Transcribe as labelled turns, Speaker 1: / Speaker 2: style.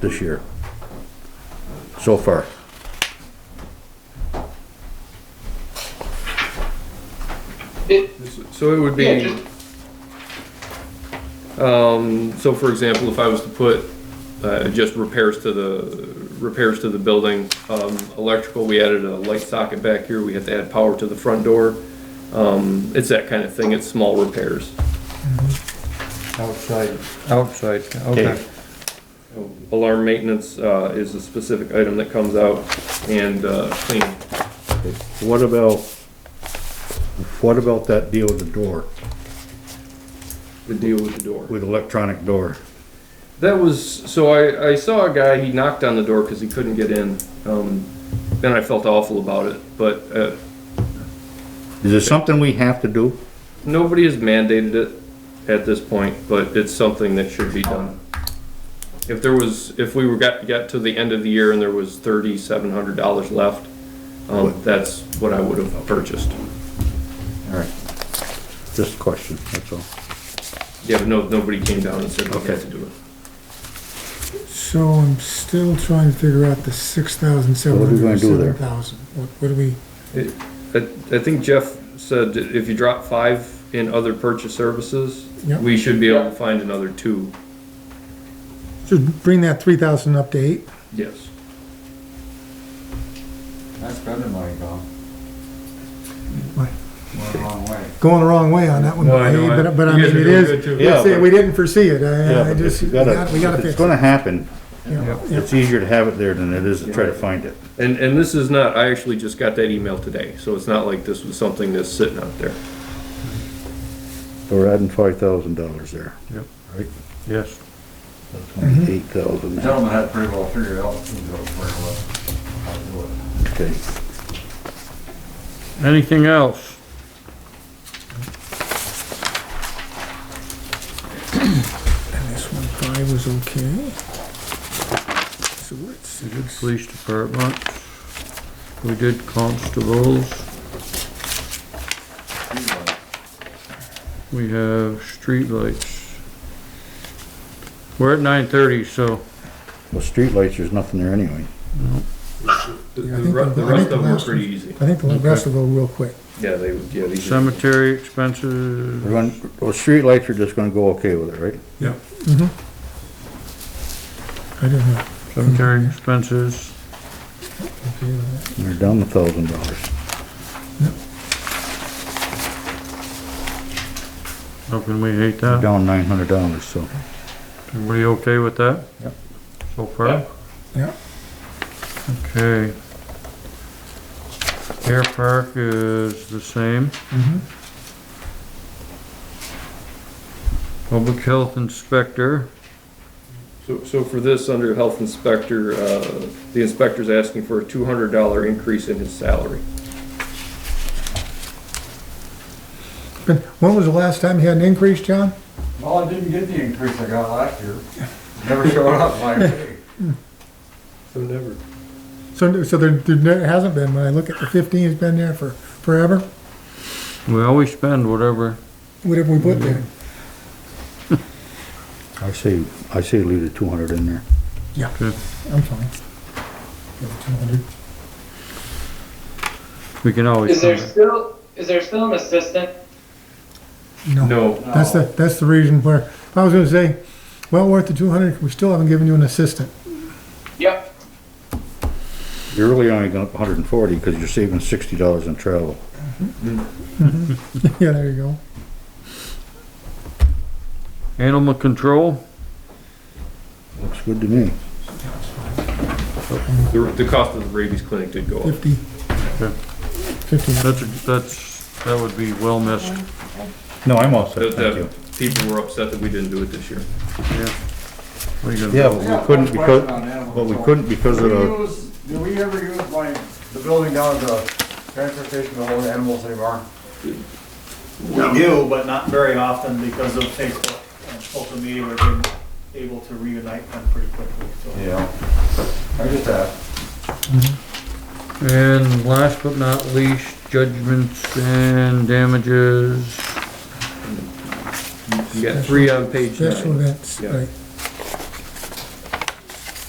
Speaker 1: this year. So far.
Speaker 2: It,
Speaker 3: So it would
Speaker 2: yeah,
Speaker 3: be,
Speaker 2: just,
Speaker 3: um, so for example, if I was to put, uh, just repairs to the, repairs to the building, um, electrical, we added a light socket back here, we had to add power to the front door. Um, it's that kind of thing, it's small repairs.
Speaker 4: Outside. Outside, okay.
Speaker 3: Alarm maintenance, uh, is a specific item that comes out and, uh, cleaning.
Speaker 1: What about, what about that deal with the door,
Speaker 3: the deal with the door.
Speaker 1: with electronic door?
Speaker 3: That was so. I, I saw a guy. He knocked on the door because he couldn't get in. Um, and I felt awful about it. But uh,
Speaker 1: Is it something we have to do?
Speaker 3: nobody has mandated it at this point. But it's something that should be done. If there was, if we were got got to the end of the year and there was thirty seven hundred dollars left, um, that's what I would have purchased.
Speaker 1: All right. Just a question, that's all.
Speaker 3: Yeah, but no, nobody came down and said we had
Speaker 1: Okay.
Speaker 3: to do it.
Speaker 5: So I'm still trying to figure out the six thousand
Speaker 1: are
Speaker 5: seven
Speaker 1: we
Speaker 5: hundred
Speaker 1: gonna
Speaker 5: and
Speaker 1: do there?
Speaker 5: seven thousand. What, what do we,
Speaker 3: I, I think Jeff said if you drop five in other purchase services,
Speaker 5: Yep.
Speaker 3: we should be able to find another two.
Speaker 5: should bring that three thousand up to eight?
Speaker 3: Yes.
Speaker 4: That's spending money gone.
Speaker 5: What?
Speaker 4: Went the wrong way.
Speaker 5: Going the wrong way on that one,
Speaker 3: No, I know.
Speaker 5: Hey, but, but I
Speaker 3: You guys
Speaker 5: mean,
Speaker 3: are doing
Speaker 5: it
Speaker 3: good,
Speaker 5: is,
Speaker 3: too.
Speaker 1: Yeah,
Speaker 5: let's say,
Speaker 1: but-
Speaker 5: we didn't foresee it,
Speaker 1: Yeah,
Speaker 5: I, I
Speaker 1: but
Speaker 5: just,
Speaker 1: you
Speaker 5: we gotta, we gotta
Speaker 1: if
Speaker 5: fix
Speaker 1: It's
Speaker 5: it.
Speaker 1: gonna happen.
Speaker 5: you know, yeah.
Speaker 1: It's easier to have it there than it is to try to find it.
Speaker 3: And, and this is not, I actually just got that email today, so it's not like this was something that's sitting out there.
Speaker 1: So We're adding five thousand dollars there.
Speaker 4: Yep.
Speaker 1: Right?
Speaker 4: Yes.
Speaker 5: Mm-hmm.
Speaker 1: Eight thousand,
Speaker 4: The gentleman had pretty well figured out, he knew where it was. how to do
Speaker 1: okay.
Speaker 4: it.
Speaker 6: Anything else?
Speaker 5: And this one five was okay. So what's,
Speaker 6: We did police department. We did constables. We have streetlights. We're at nine thirty, so
Speaker 1: Well, streetlights, there's nothing there anyway.
Speaker 3: The,
Speaker 5: Yeah, I
Speaker 3: the
Speaker 5: think
Speaker 3: ru- the
Speaker 5: the- I
Speaker 3: rest of
Speaker 5: think the
Speaker 3: them were
Speaker 5: last
Speaker 3: pretty
Speaker 5: one's-
Speaker 3: easy.
Speaker 5: I think the rest will go real quick.
Speaker 3: Yeah, they, yeah, these. are-
Speaker 6: cemetery
Speaker 1: We're
Speaker 6: expenses,
Speaker 1: gonna, well, streetlights are just gonna go okay with it, right?
Speaker 5: I don't know.
Speaker 6: cemetery expenses.
Speaker 5: Okay, uh,
Speaker 1: They're down a thousand dollars.
Speaker 6: How can we hate
Speaker 1: They're
Speaker 6: that?
Speaker 1: Down nine hundred dollars, so.
Speaker 6: Everybody okay with that?
Speaker 1: Yep.
Speaker 6: So far?
Speaker 5: Yeah.
Speaker 6: Okay. Air park is the same.
Speaker 5: mhm.
Speaker 6: Public health inspector,
Speaker 3: So, so for this, under health inspector, uh, the inspector's asking for a two hundred dollar increase in his salary.
Speaker 5: But when was the last time you had an increase, John?
Speaker 4: Well, I didn't get the increase I got last year. Never showed up my pay.
Speaker 3: So never.
Speaker 5: So, so there, there hasn't been, when I look at the fifteen, it's been there for forever,
Speaker 6: we always spend whatever,
Speaker 5: whatever we put there.
Speaker 1: I say, I say leave the two hundred in there.
Speaker 5: Yeah,
Speaker 6: Good.
Speaker 5: I'm fine. Give it 200.
Speaker 6: we can always
Speaker 2: is there
Speaker 6: spend.
Speaker 2: still is there still an assistant?
Speaker 5: No,
Speaker 3: No,
Speaker 5: that's the, that's the reason where, I was gonna say, well worth the two hundred, we still haven't given you an assistant.
Speaker 2: Yep.
Speaker 1: You're really only going up a hundred and forty, because you're saving sixty dollars in travel.
Speaker 5: Yeah, there you go.
Speaker 6: Animal control,
Speaker 1: Looks good to me.
Speaker 3: the, the cost of the rabies clinic did go up.
Speaker 5: Fifty.
Speaker 6: Okay.
Speaker 5: Fifty.
Speaker 6: that's, that's, that would be well missed.
Speaker 1: No, I'm all
Speaker 3: The,
Speaker 1: set, thank
Speaker 3: the
Speaker 1: you.
Speaker 3: people were upset that we didn't do it this year.
Speaker 6: What are you gonna
Speaker 1: Yeah,
Speaker 6: do?
Speaker 4: I got
Speaker 1: but we couldn't
Speaker 4: one question
Speaker 1: because,
Speaker 4: on animal
Speaker 1: but we
Speaker 4: control.
Speaker 1: couldn't because of
Speaker 4: Do
Speaker 1: the,
Speaker 4: we use, do we ever use like the building down at the transfer station to hold animals anymore?
Speaker 7: We do, but not very often because of Facebook and social media, we've been able to reunite them pretty quickly, so.
Speaker 4: Yeah. I just asked.
Speaker 6: And last but not least, judgments and damages.
Speaker 3: You got three on page
Speaker 5: Special
Speaker 3: nine.
Speaker 5: events,
Speaker 3: Yeah.
Speaker 5: right.